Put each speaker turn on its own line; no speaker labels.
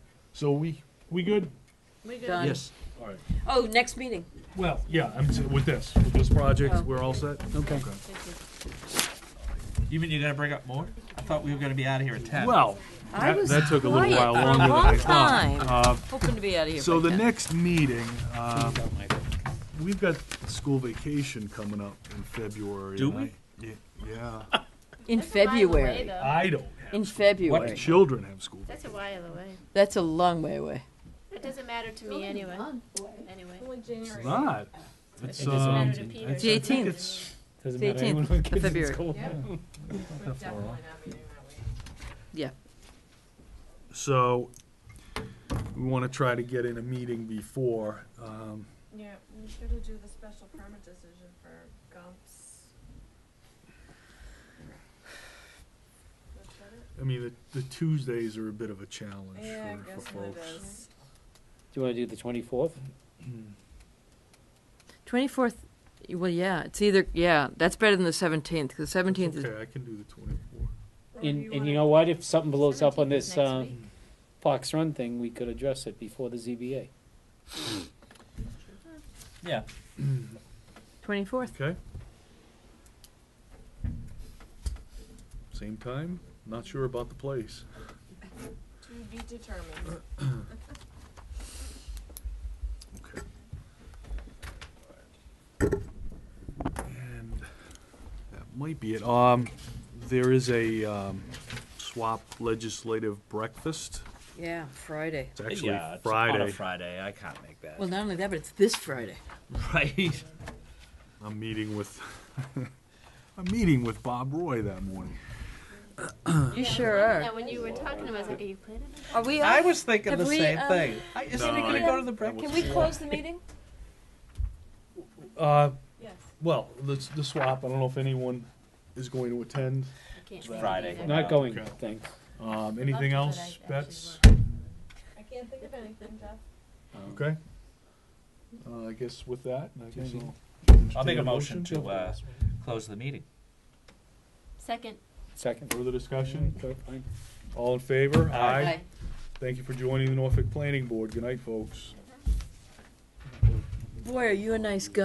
So we, we good?
We
Done.
Yes,
All right.
Oh, next meeting.
Well, yeah, I'm, s- with this, with this project,
Oh.
we're all set?
okay.
You mean you're gonna bring up more? I thought we were gonna be out of here at ten.
Well,
I
that,
was
that took a little
quiet
while
for a
longer than I
long
thought.
time.
Uh,
Hoping to be out of here.
So
by
the
10.
next meeting, um, we've got school vacation coming up in February.
Do
and I- y- Yeah,
In February.
Uh,
I don't
In
have,
February.
children have school.
That's a while away.
That's a long way away.
It doesn't matter to me anyway. Anyway.
It's not. It's,
Doesn't
um,
matter to Peter.
The
I think
18th.
it's,
The 18th of February. Yeah.
so, we wanna try to get in a meeting before, um,
Yeah, we should have do the special permit decision for Gump's. Is that it?
I mean, the, the Tuesdays are a bit of a challenge
Yeah, I
for,
guess
for
it
folks.
is.
Do you want to do the twenty-fourth?
24th. Well, yeah. It's either, yeah, that's better than the 17th because the 17th is.
Okay, I can do the twenty-fourth.
Or if
And, and
wanna-
you know what, if something blows up on
17th
this,
next
uh,
week.
Fox Run thing, we could address it before the ZBA.
Yeah.
24th.
Okay. Same time, not sure about the place.
To be determined.
Okay. And that might be it. Um, there is a, um, swap legislative breakfast.
Yeah, Friday.
It's actually Friday.
Friday, I can't make that.
Well, not only that, but it's this Friday.
Right.
I'm meeting with, I'm meeting with Bob Roy that morning.
You sure are.
Now, when you were talking about, it, I was like, are you planning on
Are we
I
off?
was thinking
Have
the
we,
same
um,
thing. I, isn't
No,
he gonna
I-
go to the break?
Can we close the meeting?
Uh,
Yes.
well, the, the swap, I don't know if anyone is going to attend.
I can't
It's
make it
Friday.
either.
Not going,
Okay.
thanks.
Um,
Love it,
anything
but
else,
I actually
Bets?
I can't think of anything, Jeff.
Okay. Uh, I guess with that, I guess I'll.
I'll make
entertain
a motion to, uh, close the meeting.
Second.
Second.
Further discussion?
Okay, fine.
All in favor?
Aye.
Aye.
Thank you for joining the Norfolk Planning Board. Good night, folks.
Boy, are you a nice guy.